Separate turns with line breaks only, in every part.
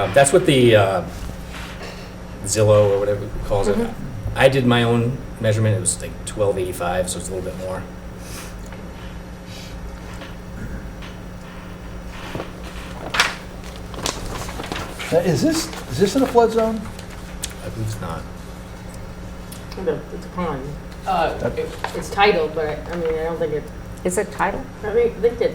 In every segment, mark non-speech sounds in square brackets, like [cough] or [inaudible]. Um, That's what the uh, Zillow or whatever it calls it.
Mm-hmm.
I did my own measurement, it was like 1285, so it's a little bit more.
Now, Uh, Is this, is this in a flood zone?
I believe it's not.
The- It's a pond.
Uh, it-
It's titled, but I mean, I don't think it,
Is it title?
I mean, I think that.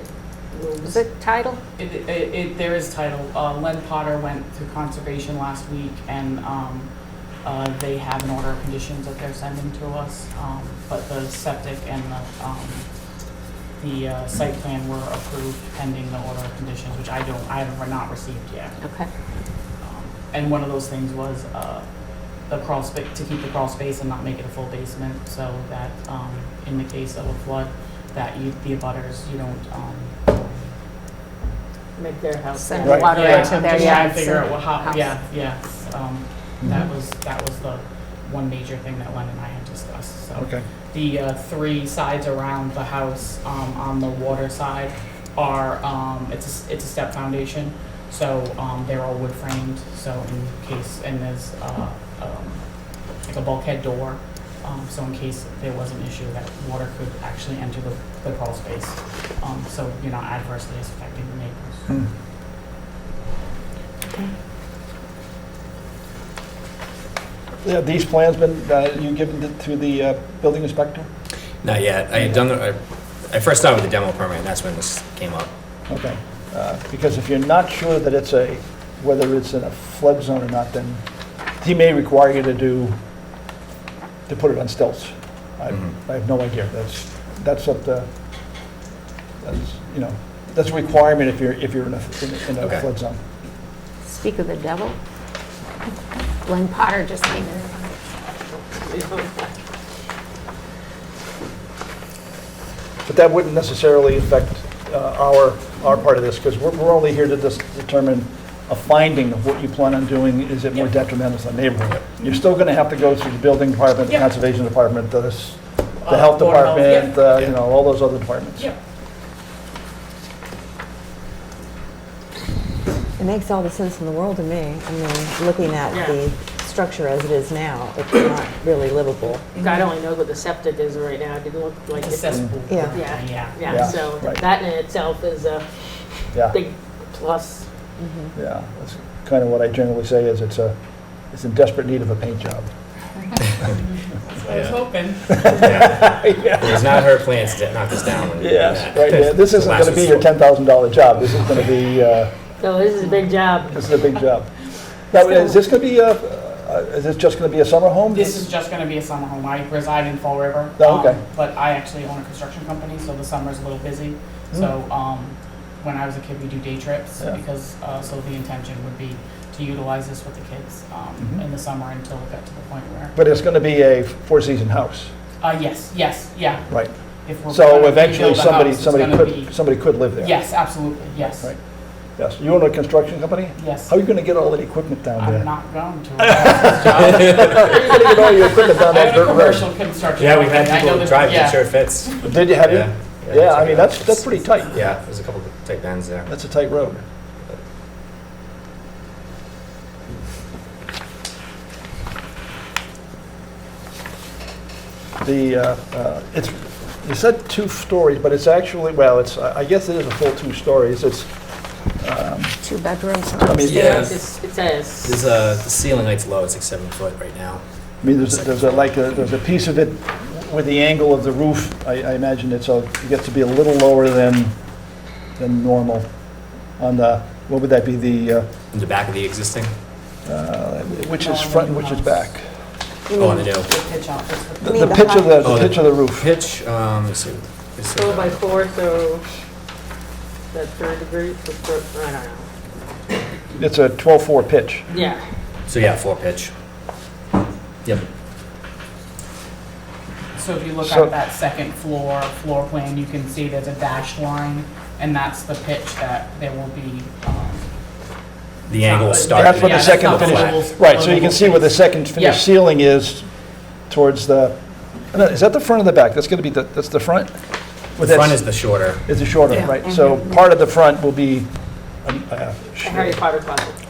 Is it title?
it- it- it- There is title. Uh, Len Potter went to conservation last week, and um, uh, they have an order of conditions that they're sending to us, um, but the septic and the, um, the uh, site plan were approved pending the order of conditions, which I don't, I have not received yet.
Okay.
Um, And one of those things was uh, the crawl space, to keep the crawl space and not make it a full basement, so that um, in the case of a flood, that you, the abutters, you don't, um,
Make their house.
Send
down.
Right.
water
yeah,
into
I'm
their
just trying to
yards.
figure out
and
what, how,
house.
yeah, yeah. um, That was, that was the one major thing that Len and I had discussed, so.
Okay.
The uh, three sides around the house um, on the water side are, um, it's, a s- it's a step foundation, so um, they're all wood framed, so in case, and there's uh, um, like a bulkhead door, um, so in case there was an issue that water could actually enter the the crawl space, um, so you're not adversely affecting the neighbors.
Yeah, These plans been, uh, you given it to the uh, building inspector?
Not yet. I had done, the- I I first started with the demo permit, and that's when this came up.
Okay. Uh, Because if you're not sure that it's a, whether it's in a flood zone or not, then he may require you to do, to put it on stilts. I I have no idea. That's, that's up to, that's, you know, that's a requirement if you're, if you're in a, in a- in
Okay.
a flood zone.
Speak of the devil. Glenn Potter just came in.
[laughs]
But that wouldn't necessarily affect uh, our, our part of this, because we're, we're only here to dis- determine a finding of what you plan on doing, is it more
Yep.
detrimental to the neighborhood? You're still going to have to go through the building department, the
Yep.
conservation department, the, s- the
Uh,
health
Board of Health,
department, uh, you know, all those other departments.
Yep.
It makes all the sense in the world to me. I mean, looking at
Yeah.
the structure as it is now, it's not really livable.
God only knows what the septic is right now. It didn't look like
Like a
it.
cesspool.
Yeah.
Yeah,
Yeah.
Yeah,
yeah, so
right.
that in itself is a
Yeah,
big plus.
yeah, that's kind of what I generally say, is it's a, it's in desperate need of a paint job.
That's what I was
Yeah.
hoping.
Yeah.
[laughs] Yeah.
It was not her plan to knock this down. when we did
Yes,
that.
right, [laughs] yeah, this isn't
Last
going to be your
resort.
$10,000 job, this is going to be, uh,
So this is a big job.
This is a big job. Now, is this going to be, a- uh, is this just going to be a summer home?
This is just gonna be a summer home. I reside in Fall River.
Oh, okay.
um, But I actually own a construction company, so the summer's a little busy. So, um, when I was a kid, we do day trips
Hmm. Yeah.
because, uh, so the intention would be to utilize this with the kids, um,
Mhm.
in the summer until it got to the point where,
But it's going to be a four-season house,
uh, yes, yes, yeah.
right?
If we're gonna
So
rebuild
eventually,
the
somebody,
house, it's
somebody
gonna
could,
be-
somebody could live there.
Yes, absolutely, yes,
Right. Yes, you own a construction company?
yes.
How are you going to get all that equipment down there?
I'm not going
[laughs]
to. I
How are you going to get all your equipment down that
own a
dirt road?
commercial construction.
Yeah, we've
company. I
had
know
people
that-
drive,
yeah.
it sure fits.
Did you, have you? Yeah, I mean, that's, that's pretty tight.
Yeah, there's a couple of tight bends there.
That's a tight road. The, uh, uh, it's, you said two stories, but it's actually, well, it's, I I guess it is a full two stories. It's, um,
Two bedrooms.
I mean,
Yeah.
I
It's- It says,
There's a, uh, the ceiling height's low, it's like seven foot right now.
mean, there's, there's a, like, a- there's a piece of it with the angle of the roof. I, I imagine it's, a- it gets to be a little lower than, than normal on the, what would that be, the, uh,
In the back of the existing,
uh, which is front and which is back?
oh, on the new.
The pitch out, it's the-
The
mean
the
the
pitch of the,
height?
Oh,
the
the-
pitch of the roof.
Pitch, um, let's see. it's,
four by
uh,
four, so that third degree, the fir- I don't know.
It's a 12-4 pitch.
Yeah,
So yeah, four pitch. Yep.
So if you look
So-
at that second floor, floor plan, you can see there's a dashed line, and that's the pitch that there will be, um,
The angle will start.
That's what
Yeah,
the
that's
second
not
finish,
livable-
right, so you can see where the second
Yeah.
finished ceiling is towards the, no, is that the front or the back? That's going to be, the that's the front?
The front is the shorter.
Mm-hmm.
It's a shorter,
Yeah.
right, so part of the front will be, um, uh,
a Harry Potter closet.